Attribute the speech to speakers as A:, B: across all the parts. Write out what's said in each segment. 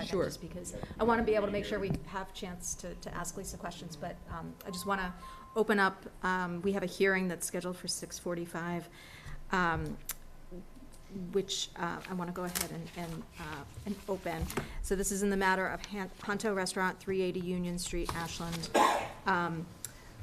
A: second,
B: Sure.
A: just because I want to be able to make sure we have chance to, to ask Lisa questions, but um, I just want to open up, um, we have a hearing that's scheduled for six forty-five, um, which uh, I want to go ahead and, and, uh, and open. So this is in the matter of Han- Honto Restaurant, three eighty Union Street, Ashland. Um,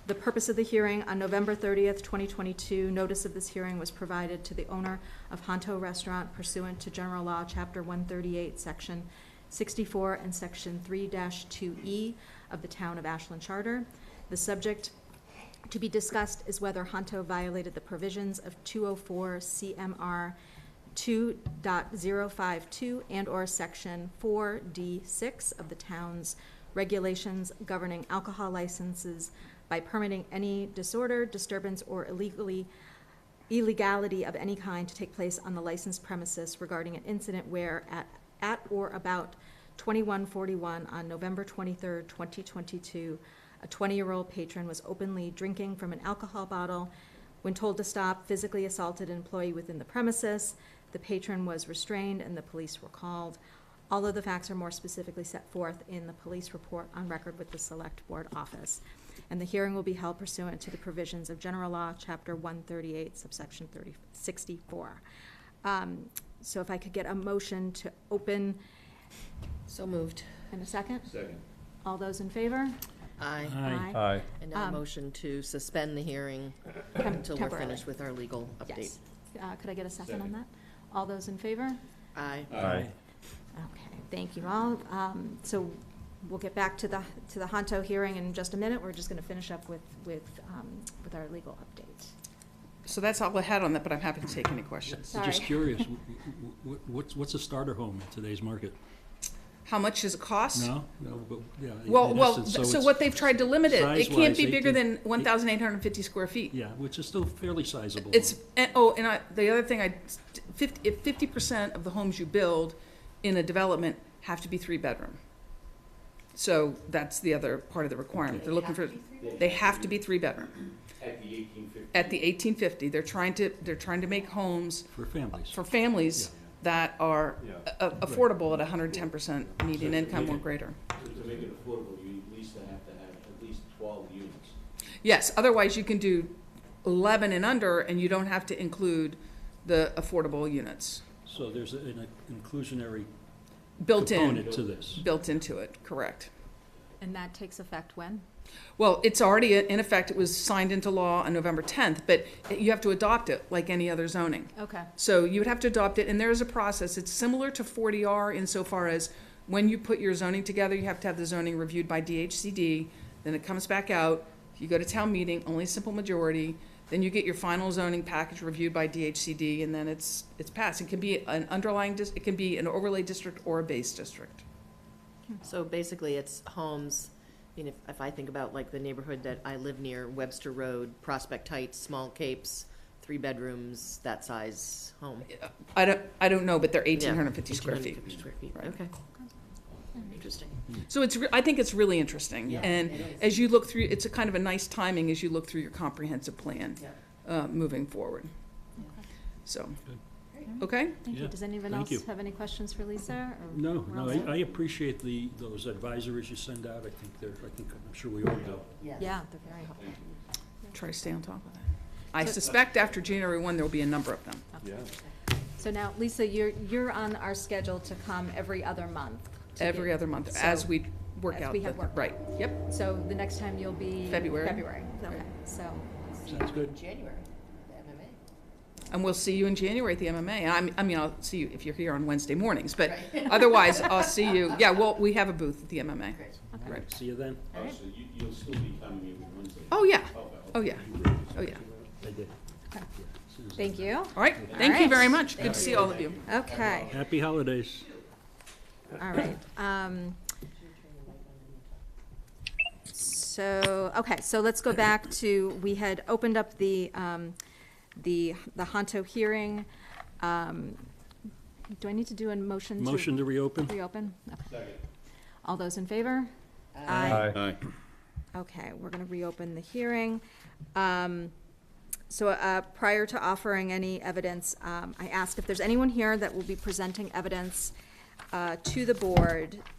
A: The purpose of the hearing, on November thirtieth, twenty twenty-two, notice of this hearing was provided to the owner of Honto Restaurant pursuant to General Law, Chapter one thirty-eight, Section sixty-four and Section three two E of the Town of Ashland Charter. The subject to be discussed is whether Honto violated the provisions of two oh four CMR 2.052 and/or Section four D six of the town's regulations governing alcohol licenses by permitting any disorder, disturbance, or illegally illegality of any kind to take place on the licensed premises regarding an incident where at, at or about twenty-one forty-one on November twenty-third, twenty twenty-two, a twenty-year-old patron was openly drinking from an alcohol bottle. When told to stop, physically assaulted an employee within the premises. The patron was restrained and the police were called. All of the facts are more specifically set forth in the police report on record with the Select Board Office. And the hearing will be held pursuant to the provisions of General Law, Chapter 138, subsection 30 64. Um, So if I could get a motion to open
B: So moved.
A: in a second?
C: Second.
A: All those in favor?
B: Aye.
D: Aye.
B: And now a
A: Um,
B: motion to suspend the hearing
A: Tem-
B: until we're
A: temporarily.
B: finished with our legal update.
A: Yes. Uh, Could I get a second on
C: Second.
A: that? All those in favor?
B: Aye.
D: Aye.
A: Okay, thank you all. Um, So we'll get back to the, to the Honto hearing in just a minute. We're just going to finish up with, with, um, with our legal update.
E: So that's all I had on that, but I'm happy to take any questions.
A: So-
F: Just
A: Sorry.
F: curious, w- w- w- what's, what's a starter home in today's market?
E: How much does it cost?
F: No? No, but, yeah. in
E: Well, well,
F: essence,
E: so
F: it's-
E: what they've tried to limit it, it can't
F: size-wise,
E: be bigger than
F: 18
E: one thousand eight hundred and fifty square feet.
F: Yeah, which is still fairly sizable.
E: It's, and, oh, and I, the other thing I, fifty, fifty percent of the homes you build in a development have to be three-bedroom. So that's the other part of the requirement. They're looking for, they have to be three-bedroom.
C: At the eighteen fifty.
E: At the eighteen fifty, they're trying to, they're trying to make homes
F: For families.
E: for families that are
C: Yeah.
E: a- a- affordable at hundred and ten percent median
C: So
E: income or
C: maybe-
E: greater.
C: To make it affordable, you at least have to have at least twelve units.
E: Yes, otherwise you can do eleven and under, and you don't have to include the affordable units
F: So there's a- an inclusionary
E: built in,
F: component to this.
E: built into it, correct.
A: And that takes effect when?
E: Well, it's already in effect, it was signed into law on November tenth, but you have to adopt it like any other zoning.
A: Okay,
E: So you would have to adopt it, and there is a process. It's similar to 40R insofar as when you put your zoning together, you have to have the zoning reviewed by DHCD, then it comes back out, you go to town meeting, only a simple majority, then you get your final zoning package reviewed by DHCD, and then it's, it's passed. It can be an underlying, dis- it can be an overlay district or a base district.
B: So basically, it's homes, you know, if I think about like the neighborhood that I live near, Webster Road, Prospect Heights, Small Capes, three bedrooms, that size home.
E: I don't, I don't know, but they're
B: Yeah,
E: 1,850 square feet.
B: 1,850 square feet,
E: Right.
B: okay. Interesting.
E: So it's, re- I think it's really interesting.
B: Yeah,
E: And
B: it is.
E: as you look through, it's a kind of a nice timing as you look through your comprehensive plan
B: Yeah.
E: uh, moving forward. So, okay?
A: thank you.
F: Yeah,
A: Does anyone
F: thank
A: else
F: you.
A: have any questions for Lisa? or
F: No,
A: we're all
F: no,
A: set?
F: I, I appreciate the, those advisories you send out. I think they're, I think, I'm sure we all do.
A: Yeah, they're very helpful.
E: Try to stay on top of that. I suspect after January 1, there'll be a number of them.
C: Yeah.
A: So now, Lisa, you're, you're on our schedule to come every other month. to
E: Every
A: give-
E: other month,
A: so-
E: as we work
A: as
E: out.
A: we have
E: the-
A: work.
E: Right, yep.
A: So the next time you'll be?
E: February.
A: February, okay, so,
F: Sounds good.
B: January, the MMA.
E: And we'll see you in January at the MMA. I'm- I mean, I'll see you if you're here on Wednesday mornings, but otherwise, I'll see you. Yeah, well, we have a booth at the MMA.
A: okay.
E: Right.
F: See you then.
A: All
C: Oh,
A: right.
C: so you, you'll still be coming here Wednesday?
E: Oh, yeah,
C: Okay.
E: oh, yeah, oh, yeah.
F: I
A: Okay.
F: did. Yeah, as soon as I-
A: Thank you.
E: All right, thank you very much. Good to see all of you.
A: Okay,
F: Happy holidays.
A: all right. Um, So, okay, so let's go back to, we had opened up the, um, the, the Honto hearing. Um, Do I need to do a motion to?
F: Motion to reopen?
A: Reopen? Okay.
C: Second.
A: All those in favor?
D: Aye.
C: Aye.
A: Okay, we're gonna reopen the hearing. Um, so, uh, prior to offering any evidence, um, I asked if there's anyone here that will be presenting evidence, uh, to the board